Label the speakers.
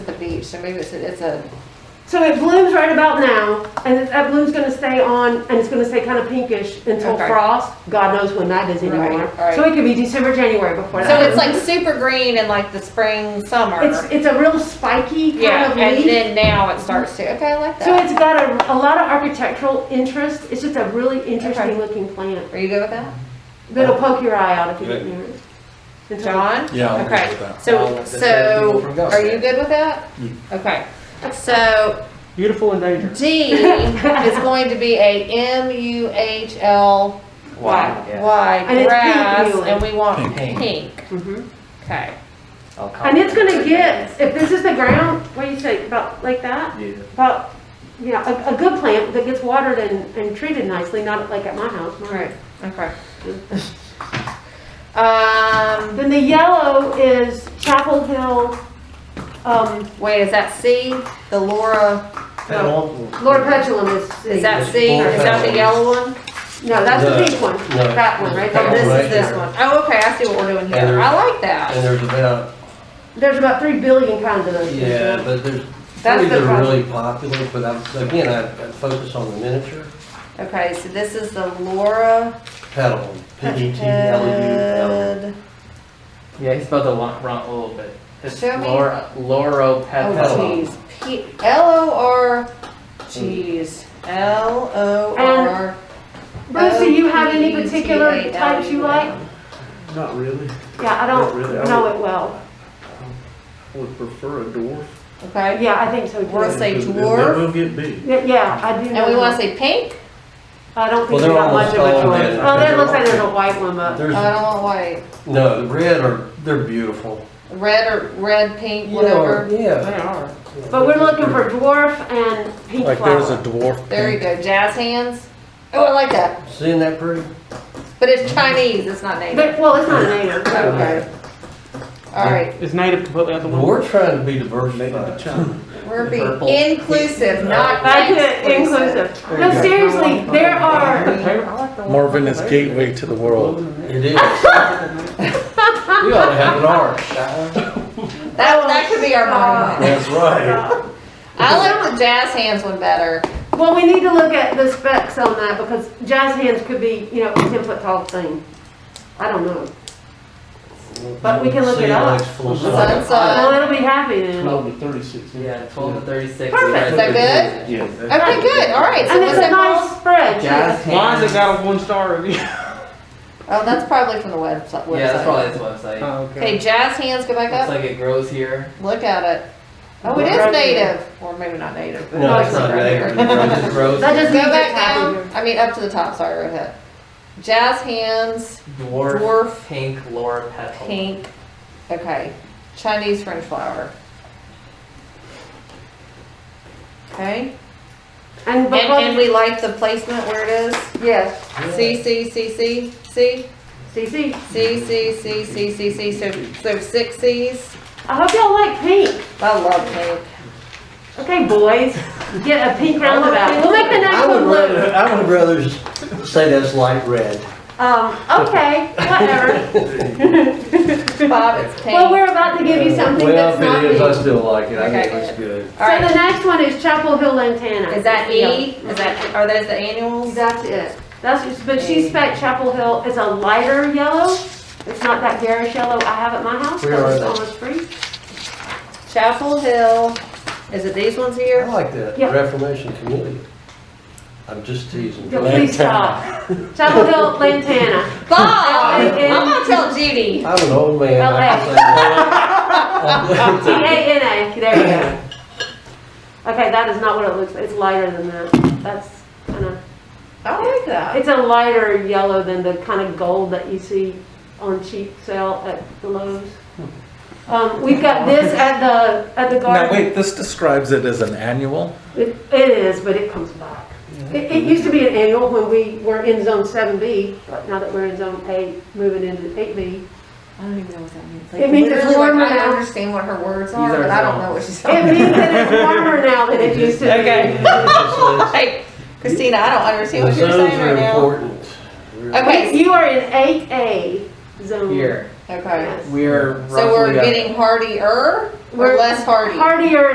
Speaker 1: leaves, so maybe it's, a- it's a,
Speaker 2: So it blooms right about now, and it- that bloom's gonna stay on, and it's gonna stay kind of pinkish until
Speaker 1: Okay.
Speaker 2: frost. God knows when that is anymore.
Speaker 1: Right, right.
Speaker 2: So it could be December, January before that.
Speaker 1: so it's like super green in like the spring, summer.
Speaker 2: It's, it's a real spiky kind
Speaker 1: Yeah,
Speaker 2: of
Speaker 1: and
Speaker 2: leaf.
Speaker 1: then now it starts to, okay, I like
Speaker 2: So
Speaker 1: that.
Speaker 2: it's got a, a lot of architectural interest. It's just a really interesting looking plant.
Speaker 1: Are you good with that?
Speaker 2: That'll poke your eye out if you get
Speaker 3: Good.
Speaker 2: near it. It's like-
Speaker 1: John?
Speaker 3: Yeah, I'm good
Speaker 1: Okay,
Speaker 3: with that.
Speaker 4: Well,
Speaker 1: so,
Speaker 4: that's where
Speaker 1: so,
Speaker 4: people from Gus
Speaker 1: are you
Speaker 4: then.
Speaker 1: good with that?
Speaker 3: Mm.
Speaker 1: Okay, so
Speaker 4: Beautiful and dangerous.
Speaker 1: D is going to be a M U H L Y,
Speaker 4: Yeah.
Speaker 2: And
Speaker 1: Y,
Speaker 2: it's pink
Speaker 1: grass,
Speaker 2: muley.
Speaker 1: and we want
Speaker 4: Pink.
Speaker 1: pink,
Speaker 2: Mhm.
Speaker 1: okay.
Speaker 4: I'll call
Speaker 2: And it's
Speaker 4: it.
Speaker 2: gonna get, if this is the ground, what do you say, about like that?
Speaker 4: Yeah.
Speaker 2: About, yeah, a, a good plant that gets watered and, and treated nicely, not like at my house. my-
Speaker 1: Right, okay. Um,
Speaker 2: Then the yellow is Chapel Hill, um,
Speaker 1: wait, is that C, the Laura,
Speaker 4: That awful-
Speaker 2: Lord Petulum is,
Speaker 1: is that
Speaker 4: It's
Speaker 1: C,
Speaker 4: four
Speaker 1: is that the
Speaker 4: petals.
Speaker 1: yellow one?
Speaker 2: no, that's the
Speaker 4: No,
Speaker 2: pink one,
Speaker 4: no.
Speaker 2: that one, right
Speaker 1: Oh,
Speaker 2: there.
Speaker 4: That
Speaker 1: this
Speaker 4: right
Speaker 1: is this
Speaker 4: there.
Speaker 1: one. Oh, okay, I see what we're doing
Speaker 4: And
Speaker 1: here,
Speaker 4: there's-
Speaker 1: I like
Speaker 4: And
Speaker 1: that.
Speaker 4: there's about,
Speaker 2: There's about three billion kinds of those.
Speaker 4: yeah, but there's,
Speaker 1: That's
Speaker 4: three
Speaker 1: the
Speaker 4: that are
Speaker 1: problem.
Speaker 4: really popular, but I'm, again, I I focus on the miniature
Speaker 1: Okay, so this is the Laura
Speaker 4: petal, P E T L E U L.
Speaker 1: Petted.
Speaker 5: Yeah, he spelled the wrong, wrong a little bit. It's
Speaker 1: Show me.
Speaker 5: Laura, Lauro Petal.
Speaker 1: Oh,
Speaker 4: Petalum.
Speaker 1: jeez. P, L O R, jeez, L O R.
Speaker 2: Brucey, you have any particular types you like?
Speaker 6: Not really.
Speaker 2: Yeah, I
Speaker 6: Not really, I
Speaker 2: don't
Speaker 6: would-
Speaker 2: know it well.
Speaker 6: I would prefer a dwarf.
Speaker 1: Okay,
Speaker 2: Yeah, I think so
Speaker 1: We'll
Speaker 2: too.
Speaker 1: say
Speaker 6: Because
Speaker 1: dwarf.
Speaker 6: That will get big.
Speaker 2: Yeah, yeah, I do know.
Speaker 1: and we wanna
Speaker 2: that.
Speaker 1: say pink?
Speaker 2: I don't
Speaker 4: Well,
Speaker 2: think we
Speaker 4: they're
Speaker 2: got much of a
Speaker 4: almost all
Speaker 2: choice.
Speaker 4: red.
Speaker 2: Oh, there
Speaker 4: They're
Speaker 2: looks like
Speaker 4: all-
Speaker 2: there's a white one up.
Speaker 1: Uh, Oh, I
Speaker 4: There's,
Speaker 1: don't want white.
Speaker 4: no, the red are, they're beautiful.
Speaker 1: Red or, red, pink,
Speaker 4: You know,
Speaker 1: whatever.
Speaker 4: Yeah.
Speaker 5: are.
Speaker 2: But we're looking for dwarf and pink
Speaker 3: Like there's a
Speaker 2: flower.
Speaker 3: dwarf.
Speaker 1: There you
Speaker 3: pink.
Speaker 1: go, jazz hands. Oh, I like that,
Speaker 4: Seeing that pretty?
Speaker 1: but it's Chinese, it's not native.
Speaker 2: But, well, it's not native.
Speaker 1: Okay. Alright,
Speaker 5: Is native completely out the window?
Speaker 4: We're trying to be
Speaker 6: Make it a
Speaker 4: diversified.
Speaker 6: china.
Speaker 1: we're
Speaker 5: Purple.
Speaker 1: being inclusive, not
Speaker 2: Back to
Speaker 1: exclusive.
Speaker 2: inclusive. No, seriously, there
Speaker 5: I
Speaker 2: are,
Speaker 5: like the- I like the one-
Speaker 3: Marvin is gateway to the world.
Speaker 4: It is. We ought to have an arch.
Speaker 1: That, that could be our monument.
Speaker 4: That's right.
Speaker 2: Oh.
Speaker 1: I like the jazz hands one better.
Speaker 2: well, we need to look at the specs on that because jazz hands could be, you know, a ten foot tall thing. I don't know. But we can look it
Speaker 4: See,
Speaker 2: up.
Speaker 4: it's full size.
Speaker 2: Well,
Speaker 1: Sunset.
Speaker 2: it'll be happy then.
Speaker 6: Twelve to thirty-six.
Speaker 5: Yeah, 12 to 36.
Speaker 2: Perfect.
Speaker 1: Is that good?
Speaker 6: Yeah.
Speaker 1: Okay, good. All right. So
Speaker 2: And
Speaker 1: what's
Speaker 2: it's a
Speaker 1: that called?
Speaker 2: nice spread.
Speaker 4: Jazz
Speaker 2: too.
Speaker 5: Why
Speaker 4: hands.
Speaker 5: has it got a one star review?
Speaker 1: Oh, that's probably from the website. website.
Speaker 7: Yeah, that's probably his website.
Speaker 5: Oh,
Speaker 1: Okay, jazz hands, go back
Speaker 7: Looks
Speaker 1: up.
Speaker 7: like it grows here.
Speaker 1: Look at it. Oh, it is
Speaker 2: Right.
Speaker 1: native, or maybe not native. but
Speaker 4: No, it's not
Speaker 1: right
Speaker 4: really.
Speaker 1: here.
Speaker 4: It grows.
Speaker 2: That just
Speaker 1: Go
Speaker 2: means it's
Speaker 1: back
Speaker 2: happy.
Speaker 1: down. I mean, up to the top. Sorry, right ahead. Jazz hands,
Speaker 7: Dwarf,
Speaker 1: Dwarf.
Speaker 7: pink Laura petal.
Speaker 1: pink. Okay, Chinese French flower. Okay,
Speaker 2: And
Speaker 1: and, and
Speaker 2: because,
Speaker 1: we like the placement where it is.
Speaker 2: yes,
Speaker 1: C C C C C. C,
Speaker 2: CC,
Speaker 1: C, C, C, C, C, so, so six Cs.
Speaker 2: I hope y'all like pink.
Speaker 1: I love pink.
Speaker 2: Okay, boys, get a pink roundabout. We'll make the next
Speaker 4: I would
Speaker 2: one blue.
Speaker 4: rather, I would rather s- say that's light red.
Speaker 2: Um, okay, whatever.
Speaker 1: Bob, it's pink.
Speaker 2: Well, we're about to give you something that's not
Speaker 4: Well, if it
Speaker 2: pink.
Speaker 4: is, I
Speaker 2: So
Speaker 4: still like it, I
Speaker 1: Okay,
Speaker 4: think it's good.
Speaker 1: All
Speaker 2: the
Speaker 1: right,
Speaker 2: next one is Chapel Hill Lantana.
Speaker 1: is that E? Is that, are those the annuals?
Speaker 2: That's it. That's, but she spec Chapel Hill is a lighter yellow. It's not that garish yellow I have at my house,
Speaker 4: Where
Speaker 2: but
Speaker 4: are
Speaker 2: it's
Speaker 4: they?
Speaker 2: almost free.
Speaker 1: Chapel Hill, is it these ones
Speaker 4: I
Speaker 1: here?
Speaker 4: like that,
Speaker 2: Yeah.
Speaker 4: Reformation community. I'm just teasing.
Speaker 2: Yeah, Please stop. Chapel Hill Lantana.
Speaker 1: Bob, I'm
Speaker 2: L-A-N.
Speaker 1: gonna tell Judy.
Speaker 4: I'm an old man. I can say
Speaker 2: T A
Speaker 4: that.
Speaker 2: N A. There you go. Okay, that is not what it looks like. It's lighter than that. That's kind of.
Speaker 1: I like that.
Speaker 2: It's a lighter yellow than the kind of gold that you see on cheap sale at the Lowe's. Um, we've got this at the, at the
Speaker 3: Now,
Speaker 2: garden.
Speaker 3: wait, this describes it as an annual?
Speaker 2: It it is, but it comes back. It, it used to be an annual when we were in zone seven B, but now that we're in zone eight, moving into eight B.
Speaker 1: I don't even know what that means.
Speaker 2: It means it's
Speaker 1: Literally, like,
Speaker 2: warmer
Speaker 1: I
Speaker 2: now.
Speaker 1: understand what her words are,
Speaker 7: These are
Speaker 1: but I don't
Speaker 7: zones.
Speaker 1: know what she's
Speaker 2: It
Speaker 1: talking
Speaker 2: means that it's warmer now than it used to be.
Speaker 1: Okay. about.
Speaker 4: It
Speaker 1: Hey, Christina, I don't understand
Speaker 4: says
Speaker 1: what you're
Speaker 4: Zones
Speaker 1: saying
Speaker 4: are
Speaker 1: right now.
Speaker 4: important.
Speaker 1: Okay,
Speaker 2: You are in eight A zone.
Speaker 7: Here.
Speaker 1: okay.
Speaker 2: Yes.
Speaker 7: We're
Speaker 1: So we're
Speaker 7: roughly uh, a-
Speaker 1: getting hardier or less hardy?
Speaker 2: Hardier